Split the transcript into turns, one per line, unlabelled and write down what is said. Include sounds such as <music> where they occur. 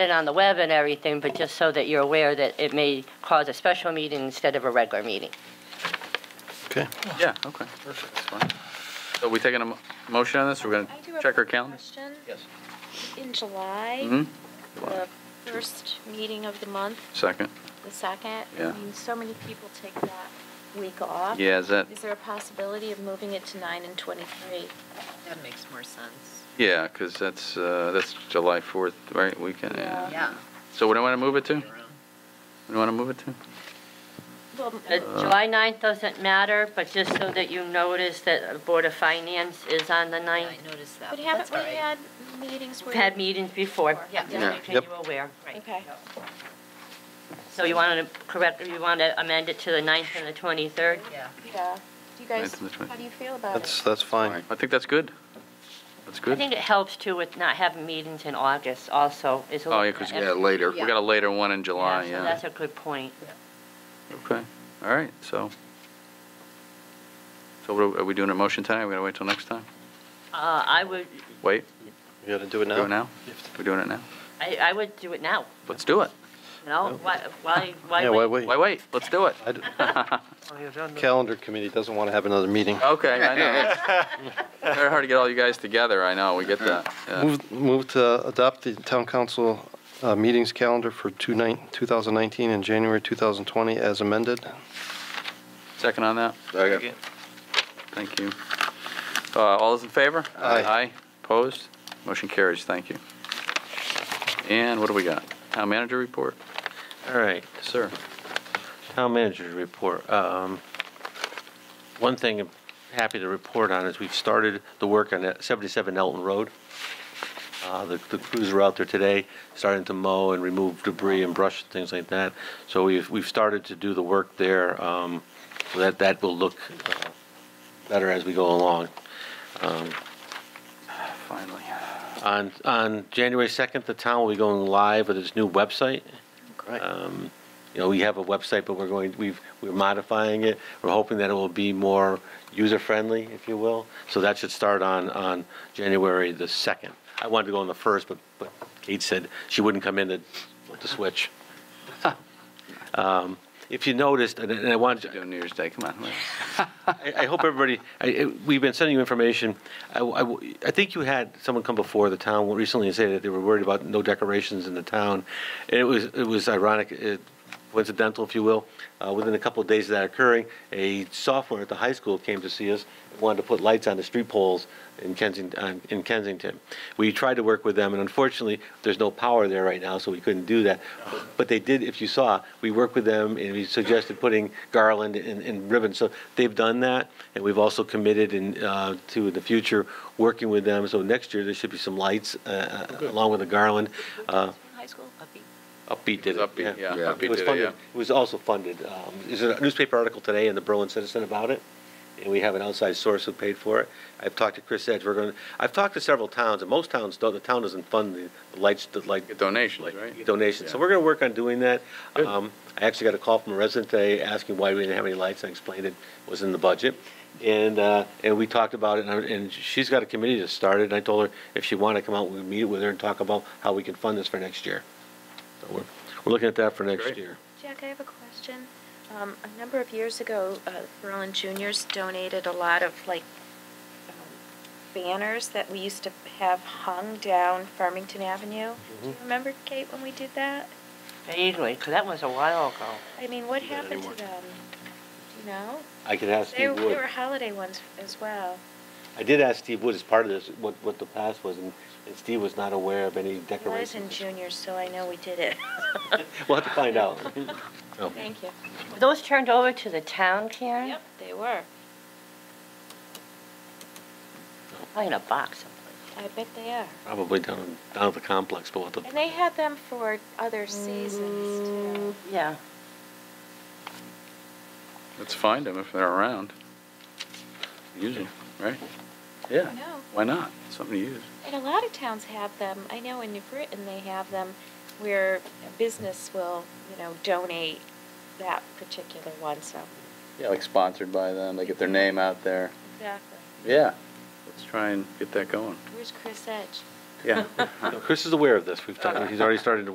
it on the web and everything, but just so that you're aware that it may cause a special meeting instead of a regular meeting.
Okay.
Yeah, okay. Perfect. That's fine. So we taking a mo- motion on this? We're going
I do
to
have
check our
one
calendar?
question.
Yes.
In July,
hmm
the first meeting of the month,
Second.
the second,
Yeah.
I mean, so many people take that week off.
Yeah, is that,
Is there a possibility of moving it to nine and twenty-three?
That makes more sense.
yeah, because that's, uh, that's July 4th, right, weekend?
Yeah.
Yeah.
So what do I want to move it to? What do I want to move it to?
Well,
Uh, July 9th doesn't matter, but just so that you notice that the Board of Finance is on the
Yeah,
9th.
I noticed that.
but
but
haven't
that's
we
all right.
had meetings where?
We've had meetings before.
Yeah.
Just
Yeah.
making
Yep.
you aware.
Okay.
So you want to correct, you want to amend it to the 9th and the 23rd?
Yeah.
Yeah. Do you guys,
Ninth and the twen-
how do you feel about it?
That's, that's fine.
I think that's good. That's
I
good.
think it helps too with not having meetings in August also. It's a
Oh,
little-
yeah, 'cause-
Yeah, later.
We got a later one in July,
so
yeah.
That's a good point.
Okay, all right, so. So what are- are we doing a motion tonight? We're going to wait till next time?
Uh, I would,
Wait,
You gotta do it now?
do it now? We're doing it now?
I, I would do it now,
Let's do it.
you know? Why, why, why?
Yeah, why
wait?
wait?
Why wait? Let's do it.
I d-
<laughs>
Okay.
Calendar committee doesn't wanna have another meeting.
Okay, I know. It's <laughs> Very hard to get all you guys together, I know, we get that. yeah.
Move, move to adopt the town council, uh, meetings calendar for two nine, two thousand nineteen and January two thousand twenty as amended.
Second on that? Thank you. Uh, All those in favor?
Aye.
Aye, opposed? Motion carries, thank you. And what do we got? Town manager report?
All right,
Sir.
town manager's report. Um, One thing I'm happy to report on is we've started the work on that 77 Elton Road. Uh, The the crews are out there today, starting to mow and remove debris and brush and things like that. So we've, we've started to do the work there. um, so That, that will look uh, better as we go along.
Finally.
On, on January 2nd, the town will be going live with its new website.
Right.
Um, you know, we have a website, but we're going, we've, we're modifying it. We're hoping that it will be more user-friendly, if you will. So that should start on, on January the 2nd. I wanted to go on the 1st, but, but Kate said she wouldn't come in to, to switch. Um, If you noticed, and and I wanted,
Doing New Year's Day, come on.
I, I hope everybody, I, I- we've been sending you information. I, w- I w- I think you had someone come before the town recently and say that they were worried about no decorations in the town. And it was, it was ironic, it- coincidental, if you will. Uh, within a couple of days of that occurring, a sophomore at the high school came to see us, wanted to put lights on the street poles in Kensington, in Kensington. We tried to work with them, and unfortunately, there's no power there right now, so we couldn't do that. But they did, if you saw, we worked with them, and we suggested putting garland and, and ribbon. So they've done that, and we've also committed in, uh, to the future, working with them. So next year, there should be some lights, uh, uh, along with the garland. Uh,
High school?
Upbeat did it.
Upbeat, yeah, Yeah. Upbeat
It was
did it,
funded,
yeah.
it was also funded, um, there's a newspaper article today in the Berlin Citizen about it, and we have an outside source who paid for it. I've talked to Chris Edge, we're going, I've talked to several towns, and most towns, don't- the town doesn't fund the- the lights, the light.
Get donations,
like,
right?
Donations, so
Yeah.
we're gonna work on doing that.
Good.
Um, I actually got a call from a resident today asking why we didn't have any lights, I explained it was in the budget. And, uh, and we talked about it, and, I- and she's got a committee that started, and I told her if she wanted to come out, we'd meet with her and talk about how we can fund this for next year. So we're, we're looking at that for next
Great.
year.
Jack, I have a question. Um, a number of years ago, uh, Berlin Juniors donated a lot of like um, banners that we used to have hung down Farmington Avenue. Do
Mm-hmm.
you remember, Kate, when we did that?
Vaguely, 'cause that was a while ago.
I mean, what
Do that
happened to
anymore.
them? Do you know?
I could ask
They,
Steve
they
Wood.
were holiday ones as well.
I did ask Steve Wood as part of this, what, what the past was, and, and Steve was not aware of any
It was in
decorations.
Juniors, so I know we did it.
<laughs> We'll have to
<laughs>
find out. Oh.
Thank you.
Were Those turned over to the town, Karen?
Yep, they were.
Probably in a box somewhere.
I bet they are.
Probably down, down at the complex, but we'll have to-
And they had them for other seasons too.
Yeah.
Let's find them if they're around. Use them, right? Yeah,
I know.
why not? Something to use.
And a lot of towns have them. I know in New Britain they have them where a business will, you know, donate that particular one, so.
Yeah, like sponsored by them, they get their name out there.
Exactly.
Yeah. Let's try and get that going.
Where's Chris Edge?
Yeah.
No, Chris is aware of this, we've, talked- he's already started to